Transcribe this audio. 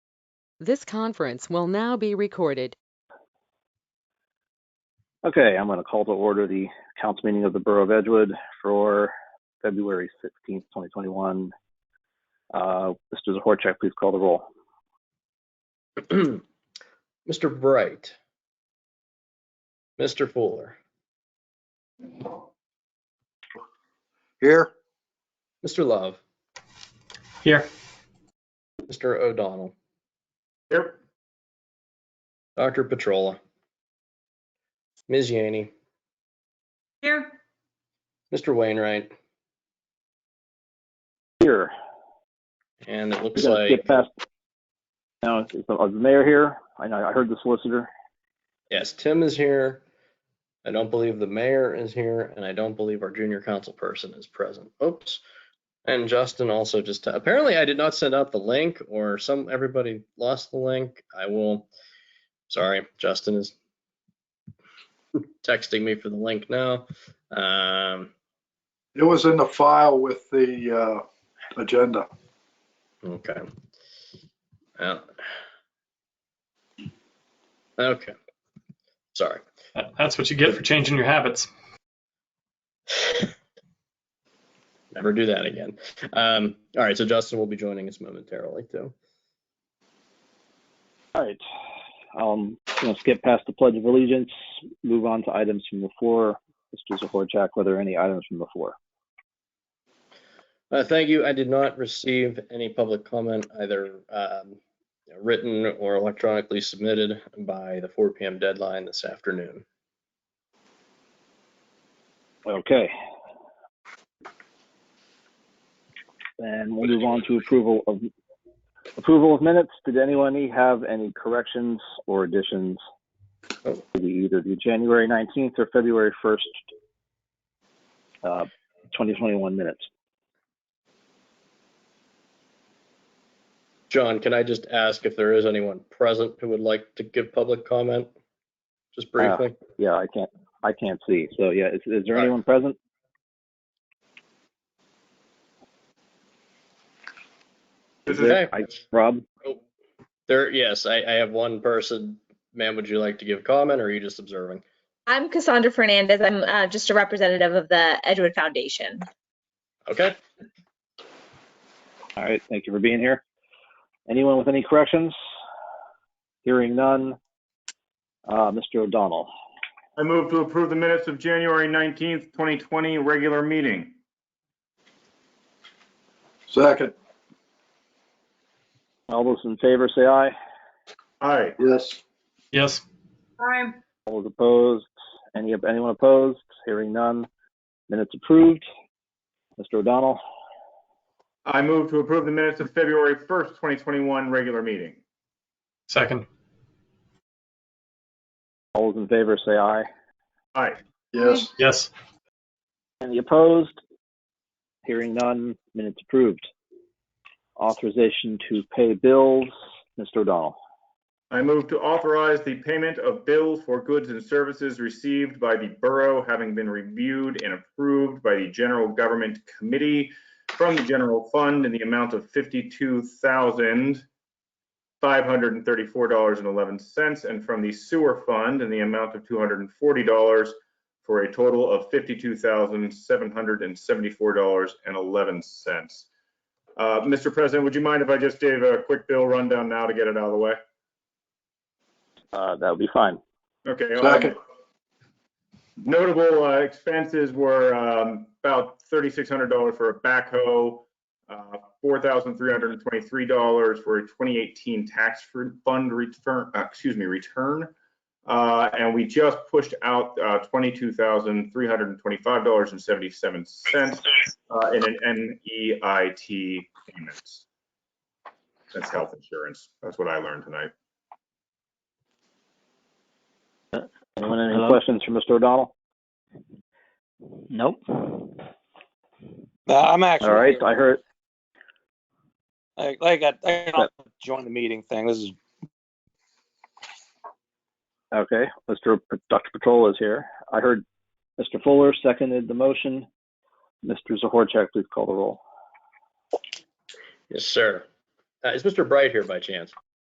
This conference will now be recorded. Okay, I'm going to call to order the council meeting of the Borough of Edgewood for February 16th, 2021. Uh, Mr. Zohorecheck, please call the roll. Mr. Bright. Mr. Fuller. Here. Mr. Love. Here. Mr. O'Donnell. Here. Dr. Petrola. Ms. Yaney. Here, Mr. Wainwright. Here. And it We're looks going to like, skip past. Now, is the is the mayor here? I know, I heard the solicitor. yes, Tim is here. I don't believe the mayor is here, and I don't believe our junior council person is present. Oops. And Justin also just, apparently I did not send out the link or some, everybody lost the link. I will, sorry, Justin is texting me for the link now. Um, It was in the file with the uh, agenda. Okay. Uh, Well. Okay. Sorry. That- That's what you get for changing your habits. Never do that again. Um, all right. So Justin will be joining us momentarily too. All right. Um, I'm going to skip past the Pledge of Allegiance, move on to items from the floor. Mr. Zohorecheck, were there any items from the floor? Uh, thank you. I did not receive any public comment either um, written or electronically submitted by the 4 p.m. deadline this afternoon. Okay. And we'll move on to approval of, approval of minutes. Did anyone have any corrections or additions? to the- Either the January 19th or February 1st, uh, 2021 minutes. John, can I just ask if there is anyone present who would like to give public comment? Just Uh, briefly. Yeah, I can't, I can't see. So yeah, is, is there All right. anyone present? Is there- Okay. I- Rob? There, yes, I, I have one person. Ma'am, would you like to give comment or are you just observing? I'm Cassandra Fernandez. I'm uh, just a representative of the Edgewood Foundation. Okay, All right, thank you for being here. Anyone with any corrections? Hearing none. Uh, Mr. O'Donnell? I move to approve the minutes of January 19th, 2020, regular meeting. Second. All those in favor say aye. Aye. Yes. Yes. aye, All those opposed? Any, anyone opposed? Hearing none. Minutes approved. Mr. O'Donnell? I move to approve the minutes of February 1st, 2021, regular meeting. Second. All those in favor say aye. Aye. Yes. Yes. Any opposed? Hearing none. Minutes approved. Authorization to pay bills. Mr. O'Donnell? I move to authorize the payment of bills for goods and services received by the borough having been reviewed and approved by the General Government Committee from the general fund in the amount of $52,534.11 and from the sewer fund in the amount of $240 for a total of $52,774.11. Uh, Mr. President, would you mind if I just gave a quick bill rundown now to get it out of the way? Uh, that would be fine. Okay. well, um, Second. Notable uh, expenses were um, about $3,600 for a backhoe, uh, $4,323 for a 2018 tax fund return, uh, excuse me, return. Uh, And we just pushed out uh, $22,325.77 uh, in an NEIT payments. That's health insurance. That's what I learned tonight. Anyone any Hello? questions for Mr. O'Donnell? Nope. I'm actually. All right, I heard, I, I got, I got join the meeting thing. This is, Okay, Mr. P- Dr. Patrol is here. I heard Mr. Fuller seconded the motion. Mr. Zohorecheck, please call the roll. yes, sir. Uh, Is Mr. Bright here by chance?